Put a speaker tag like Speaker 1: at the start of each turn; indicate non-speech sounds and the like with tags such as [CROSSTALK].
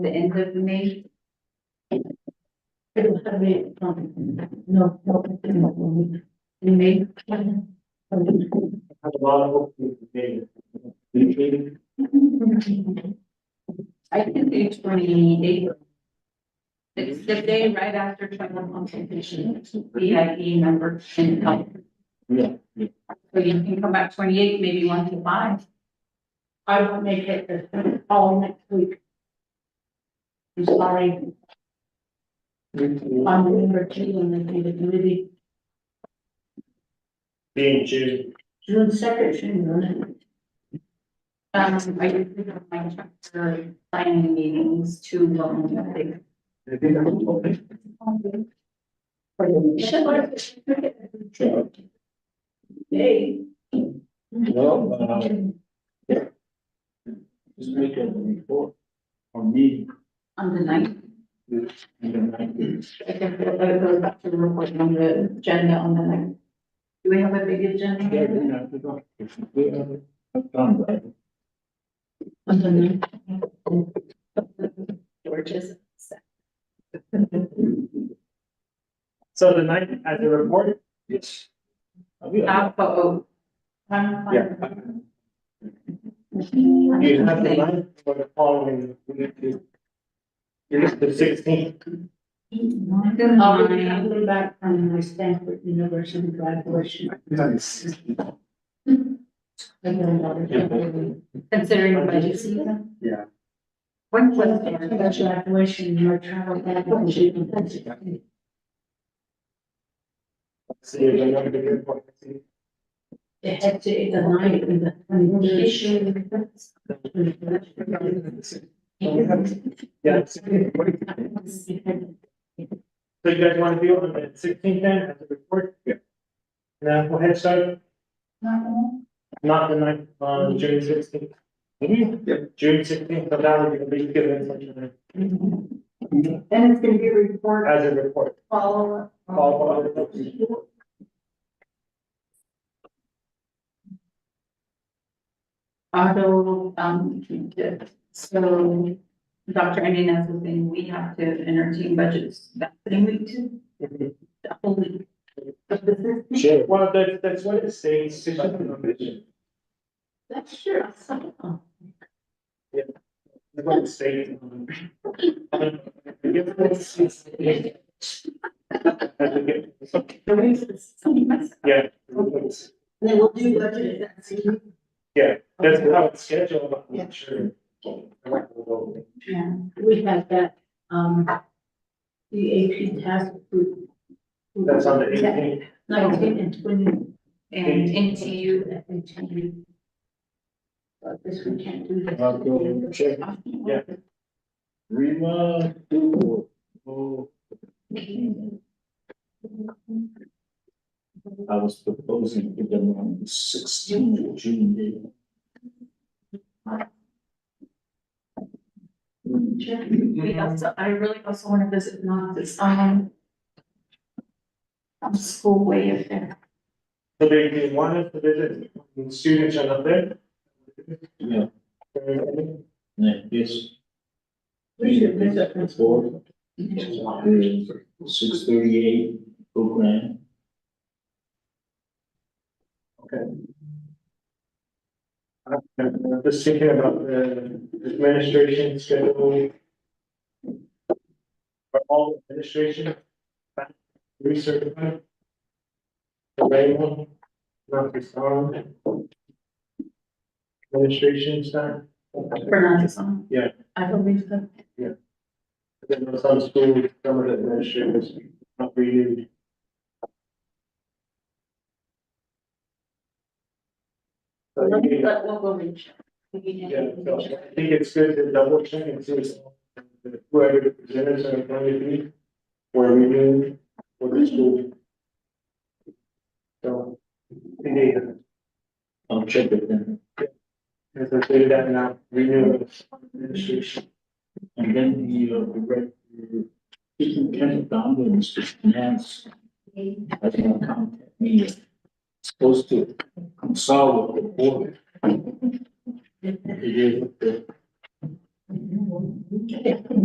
Speaker 1: the end of May.
Speaker 2: It will have it, um, no, no, it's not one
Speaker 1: In May,
Speaker 2: week.
Speaker 3: have a lot of hope in the day. The training,
Speaker 1: I can do twenty eight. It's the day right after twenty one consultation, VIP member and help.
Speaker 3: yeah, yeah.
Speaker 1: So you can come back twenty eight, maybe one to five.
Speaker 2: I will make it the following next week. I'm sorry, I'm number two in the committee.
Speaker 3: Being June,
Speaker 2: June second, June.
Speaker 1: Um, I usually have my chapter planning meetings too long. I think.
Speaker 3: I think I'm hoping.
Speaker 2: Hey.
Speaker 3: Well, uh, this weekend, before, or me,
Speaker 1: On the ninth,
Speaker 3: and then I do.
Speaker 2: I can feel better going back to the report on the agenda on the next.
Speaker 1: do we have a big agenda?
Speaker 3: Yeah, then I forgot. It's a bit of a- I've done that.
Speaker 2: George's.
Speaker 3: So the night at the report? Yes. Yeah.
Speaker 1: Alpha O.
Speaker 3: You have the night for the following. It is the sixteenth,
Speaker 1: Um,
Speaker 2: I'll be coming back from my Stanford University graduation. I got another job.
Speaker 1: Considering budget season.
Speaker 3: Yeah.
Speaker 1: One
Speaker 2: Well,
Speaker 1: question.
Speaker 2: I got Graduation, your travel. graduation.
Speaker 3: so you're gonna have to be here for the
Speaker 2: They had to, the night in the communication.
Speaker 3: [LAUGHS] Yeah. 16th. So you guys wanna be on the sixteenth then at the report? Yeah. Now, go ahead, start, not the night, um, June sixteenth. Yep. June sixteenth, so that would be given such a, Mm-hmm.
Speaker 2: And it's gonna be report
Speaker 3: as a report,
Speaker 2: follow up.
Speaker 3: follow up. with the-
Speaker 1: Auto, um, so Dr. Inez was saying we have to entertain budgets that same week too, the whole week. But this is-
Speaker 3: Sure. Mm-hmm. Well, that's, that's what it says. but-
Speaker 2: That's true. I saw it.
Speaker 3: That's what it says. Yeah.
Speaker 2: Then we'll do budget. at the same time.
Speaker 3: Yeah, that's how it's scheduled, but
Speaker 2: Yeah.
Speaker 3: I'm sure.
Speaker 1: Yeah.
Speaker 2: We had that, um, the AP task group.
Speaker 3: That's on the
Speaker 2: Yeah,
Speaker 3: eighteenth.
Speaker 2: Nineteen and twenty.
Speaker 1: And NTU,
Speaker 2: that they changed. But this we can't do. this.
Speaker 3: I'll go check. Yeah. Rima, two, oh, I was proposing to them on the sixteenth of June. meeting.
Speaker 1: we also, I really also want to visit not this, um, um, school way of there.
Speaker 3: So they, they want us to visit the students on up there? Yeah. Yeah, yes.
Speaker 2: We should visit this board.
Speaker 3: Six thirty-eight program. Okay. I'm I'm just thinking about the administration schedule. Are all administration back recertified? Available, not disarmed. Administration staff.
Speaker 1: For not this one.
Speaker 2: I believe so.
Speaker 3: Then there's some schools, some of the administrators not renewed. So I think,
Speaker 2: But we'll go reach.
Speaker 3: yeah, so I think it's good to double check and see if whoever the presenters are going to be, were renewed for the school. So, we need to
Speaker 4: I'll check it then.
Speaker 3: as I say that now, renew the administration.
Speaker 4: And then the, uh, the rec- the Kitchen County Ambulance Finance. That's gonna contact me. Supposed to consult with the board. It is the